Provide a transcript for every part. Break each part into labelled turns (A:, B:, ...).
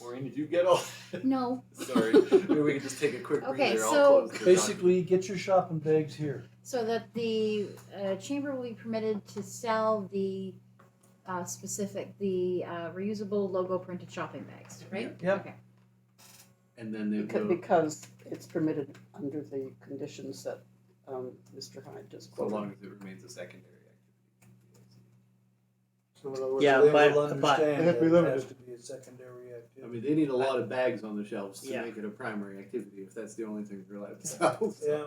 A: Maureen, did you get all?
B: No.
A: Sorry, maybe we can just take a quick
B: Okay,
A: breather. I'll
B: so-
A: close the doc-
C: Basically, get your shopping bags here.
B: So that the uh, chamber will be permitted to sell the uh, specific, the uh, reusable logo printed shopping bags, right?
C: Yep.
B: Okay.
A: and then they
D: Because,
A: will,
D: because it's permitted under the conditions that, um, Mr. Hyde just
A: so long
D: quoted.
A: as it remains a secondary activity.
C: So in other words,
E: Yeah,
C: they
E: but-
C: will
E: but-
C: understand
F: It has to
C: that
F: be
C: it
F: limited.
C: has to be a secondary activity.
A: I mean, they need a lot of bags on the shelves to
E: Yeah.
A: make it a primary activity if that's the only thing they're allowed to sell.
C: Yeah,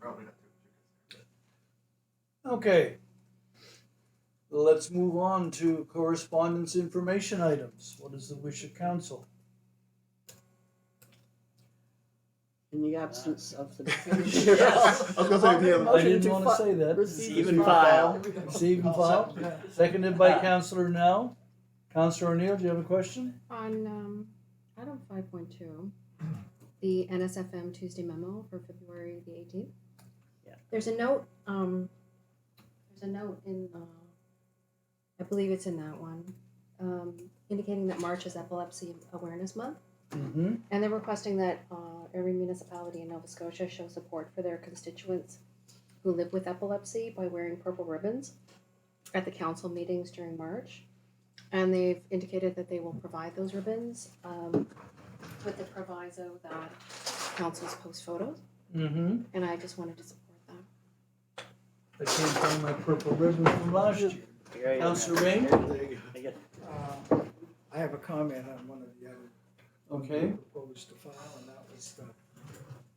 G: Probably not too much.
C: okay. Let's move on to correspondence information items. What is the wish of council?
D: In the absence of the.
G: I was gonna say, if he had-
C: I
D: Motion
C: didn't
D: to
C: wanna
D: fi-
C: say that.
E: Receive and file. Ah.
C: Receive and file. Seconded by Counselor Now. Counselor O'Neill, do you have a question?
H: On um, item five point two, the NSFM Tuesday memo for February the eighteenth.
E: Yeah.
H: There's a note, um, there's a note in, uh, I believe it's in that one, um, indicating that March is Epilepsy Awareness Month.
C: Mm-hmm.
H: And they're requesting that uh, every municipality in Nova Scotia show support for their constituents who live with epilepsy by wearing purple ribbons at the council meetings during March. And they've indicated that they will provide those ribbons um, with the proviso that councils post photos.
C: Mm-hmm.
H: And I just wanted to support that.
C: That came from my purple ribbon from last year.
E: Right.
C: Counselor Ring?
A: There you go.
F: Uh, I have a comment on one of the other. ones we
C: Okay.
F: Proposed to file, and that was the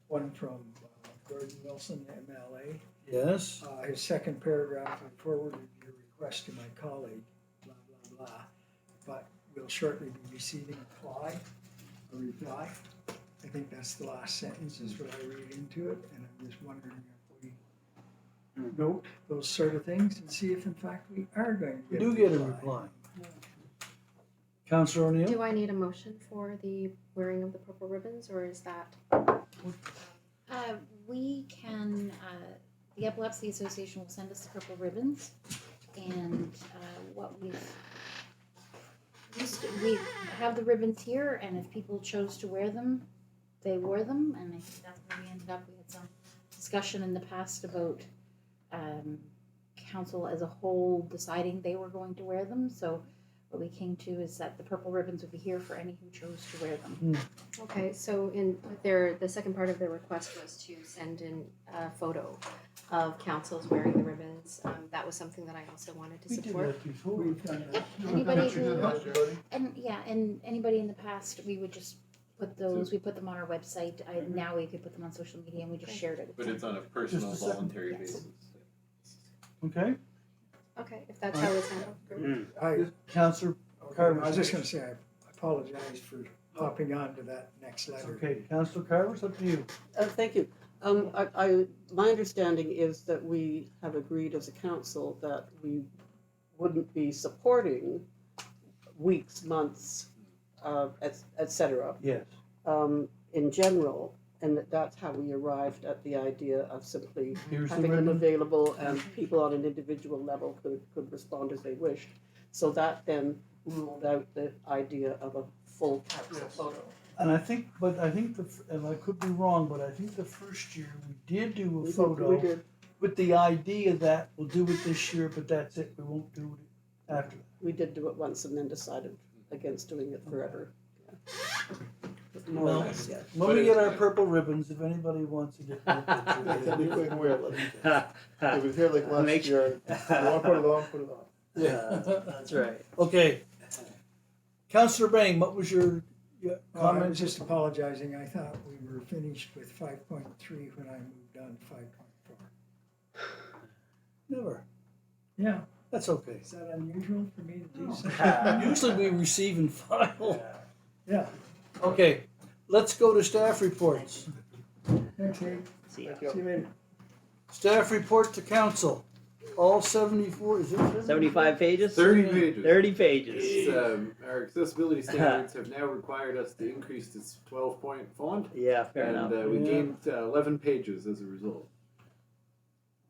F: one from uh, Gordon Wilson, MLA.
C: Yes.
F: Uh, his second paragraph, I forwarded your request to my colleague, blah, blah, blah. But we'll shortly be receiving a reply, a reply. I think that's the last sentence is what I read into it, and I'm just wondering if we note those sort of things and see if in fact we are going to
C: We
F: get.
C: do get a reply. Counselor O'Neill?
H: Do I need a motion for the wearing of the purple ribbons or is that?
B: Uh, we can, uh, the Epilepsy Association will send us the purple ribbons and uh, what we've used, we have the ribbons here and if people chose to wear them, they wore them and I think that's where we ended up. We had some discussion in the past about um, council as a whole deciding they were going to wear them. So what we came to is that the purple ribbons would be here for any who chose to wear them.
H: Okay, so in their, the second part of their request was to send in a photo of councils wearing the ribbons. Um, that was something that I also wanted to
C: We did
H: support.
C: that before.
F: We've done that.
B: Anybody
G: you did
B: who
G: last year.
B: And yeah, and anybody in the past, we would just put those, we put them on our website. I, now we could put them on social media and we just shared it. with
A: But
B: them.
A: it's on a personal,
C: second.
A: voluntary
B: Yes.
A: basis.
C: Okay.
H: Okay, if that's how it's handled.
F: I,
C: Counselor,
F: Carter, I was just gonna say, I apologize for hopping on to that next letter.
C: okay, Counselor Carver's up to you.
D: Uh, thank you. Um, I, I, my understanding is that we have agreed as a council that we wouldn't be supporting weeks, months, uh, et, et cetera,
C: Yes.
D: um, in general, and that that's how we arrived at the idea of simply
C: Here's the
D: having them
C: ribbon.
D: available and people on an individual level could, could respond as they wished. So that then ruled out the idea of a full council photo.
C: And I think, but I think the, f- and I could be wrong, but I think the first year we did do a
D: We did- We
C: photo
D: did,
C: with the idea that we'll do it this year, but that's it, we won't do it after.
D: we did do it once and then decided against doing it forever. More or
C: Well-
D: less, yeah.
C: When we get our purple ribbons, if anybody wants to get. one,
G: That's
C: we'll
G: a
C: do it.
G: liquid will. It
E: Uh,
G: was here like
E: Make-
G: last year. You wanna put it on, put it on.
E: That's right.
C: Okay. Counselor Bang, what was your your
F: Well, I
C: comment?
F: was just apologizing, I thought we were finished with five point three when I moved on to five point four.
C: Never.
F: Yeah,
C: That's okay.
F: is that unusual for me to do so?
C: Usually we receive and file.
F: Yeah,
C: Okay, let's go to staff reports.
F: thanks, Abe.
E: See ya.
G: Thank you.
F: See you later.
C: Staff report to council. All seventy-four, is it seventy-fiur?
E: Seventy-five pages?
A: Thirty pages.
E: Thirty pages.
A: It's, um, our accessibility standards have now required us to increase this 12 point font,
E: Yeah, fair enough.
A: and uh, we
C: Yeah.
A: gained uh, 11 pages as a result.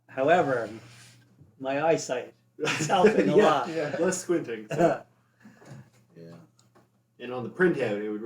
E: However, my eyesight is helping a lot.
G: Yeah.
A: Less squinting. so-
E: Uh,
A: And on the printout, it would